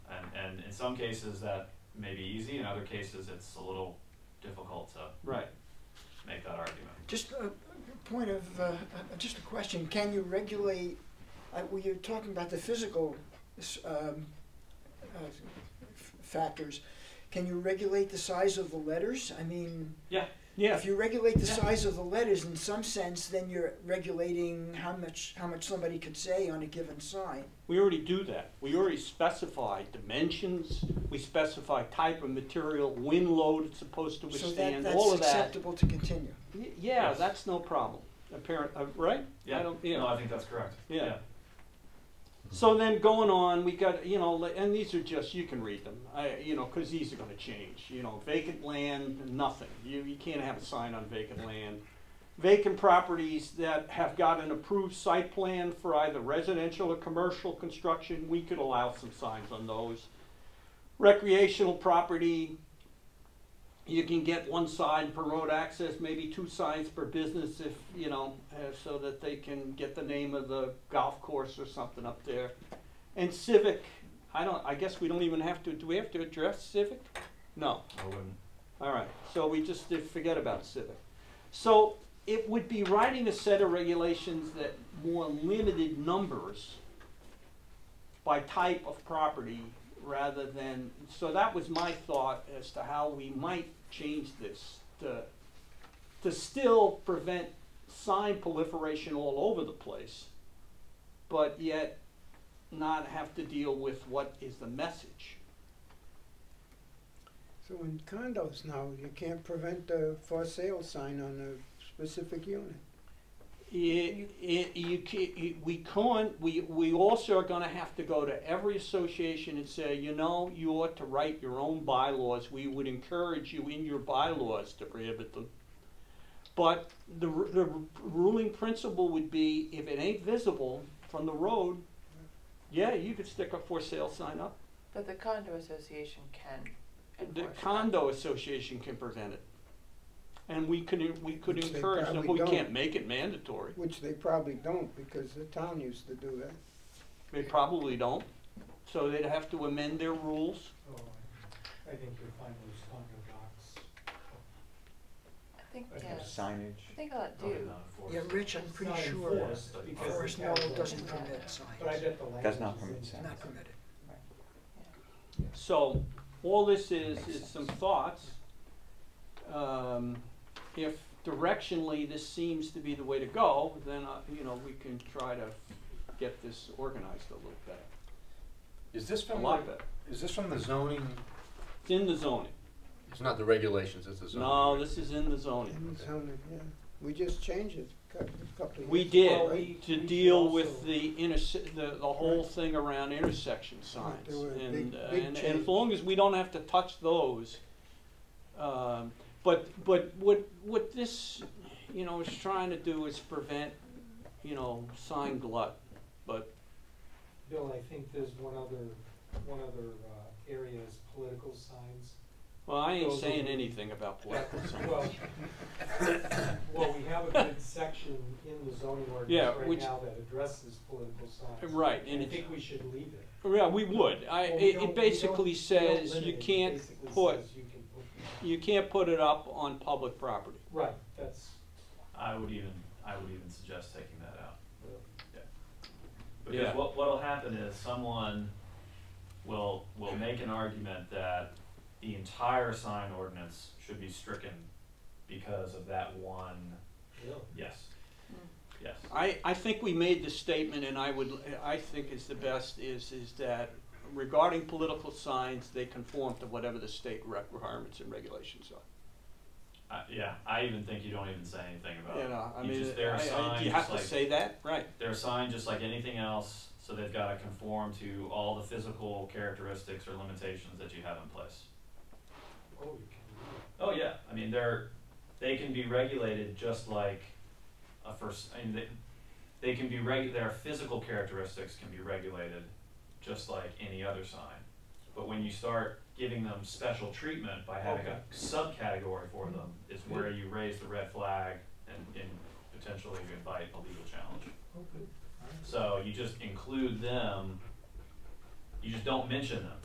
some cases that may be easy, in other cases it's a little difficult to Right. make that argument. Just a a point of, uh, uh, just a question, can you regulate, uh, well, you're talking about the physical s- um, uh, f- factors. Can you regulate the size of the letters? I mean, Yeah. if you regulate the Yeah. size of the letters in some sense, then you're regulating how much, how much somebody could say on a given sign. We already do that. We already specify dimensions, we specify type of material, wind load it's supposed to So that, withstand, all that's of that. acceptable to continue. Y- Yeah, Yes. that's no problem, apparent, uh, right? Yeah, I don't, you no, know. I think that's correct. Yeah. So then going on, we got, you know, li- and these are just, you can read them, I, you know, cause these are gonna change, you know, vacant land, nothing. You, you can't have a sign on vacant land. Vacant properties that have got an approved site plan for either residential or commercial construction, we could allow some signs on those. Recreational property, you can get one sign per road access, maybe two signs per business if, you know, uh, so that they can get the name of the golf course or something up there. And civic, I don't, I guess we don't even have to, do we have to address civic? No, I wouldn't. all right, so we just did forget about civic. So it would be writing a set of regulations that more limited numbers by type of property rather than, so that was my thought as to how we might change this to, to still prevent sign proliferation all over the place, but yet not have to deal with what is the message. So in condos now, you can't prevent a for sale sign on a specific unit. It, it, you, ca- you, we can't, we, we also are gonna have to go to every association and say, you know, you ought to write your own bylaws, we would encourage you in your bylaws to prohibit them. But the, ru- the ru- ruling principle would be, if it ain't visible from the road, yeah, you could stick a for sale sign up. But the condo association can The enforce that. condo association can prevent it. And we could, we could Which they encourage them, but probably we can't don't. make it mandatory, Which they probably don't, because the town used to do that. they probably don't, so they'd have to amend their rules. Oh, I think you'll find those condo docs. I think, I yeah, signage. I think I'll Not do. in, uh, force. Yeah, Rich, I'm It's pretty not sure enforced But- because Forest they Knoll have the- doesn't permit signs. But I bet the language Does not is permit in- signs. Not permitted. So, all this is, is some thoughts. Um, if directionally this seems to be the way to go, then, uh, you know, we can try to get this organized a little better, Is this a from, lot the- better. is this from the zoning? It's in the zoning. It's not the regulations, it's the zoning. No, this is in the And zoning. it's only- yeah. We just changed it a cou- a couple of We years did, ago, Well, we- right? to we should deal with also- the interse- the, the whole thing around intersection signs. there were And, big- uh, big and, and as changes. long as we don't have to touch those. Um, but, but what, what this, you know, is trying to do is prevent, you know, sign glut. But, Bill, I think there's one other, one other uh, area is political signs. well, I ain't Those are- saying anything about political Well, signs. well, we have a good section in the zoning Yeah, ordinance right which- now that addresses political signs. Right, and And I it's, think we should leave it. yeah, we would. I, Well, it, we don't- we it don't- basically we don't says limit you it. It can't basically put, says you can put- you can't put it up on public property. Right, that's, I would even, I would even suggest taking that out. Yeah. Because what, what'll happen is someone will, will make an argument that the entire sign ordinance should be stricken because of that one, yeah. yes, Mm. yes. I, I think we made the statement, and I would, I think is the best, is, is that regarding political signs, they conform to whatever the state requirements and regulations are. I yeah, I even think you don't even say anything about You it. know, I You mean, just- there are I- I- do signs, you have to like- say that? Right. They're signed just like anything else, so they've gotta conform to all the physical characteristics or limitations that you have in place. Oh, you can leave it. Oh yeah, I mean they're they can be regulated just like a first. I mean they, they can be reg. Their physical characteristics can be regulated just like any other sign. But when you start giving them special treatment by having Okay. a subcategory for them, is where you raise the red flag and, and potentially invite a legal challenge. Oh, good. All right. So you just include them. You just don't mention them.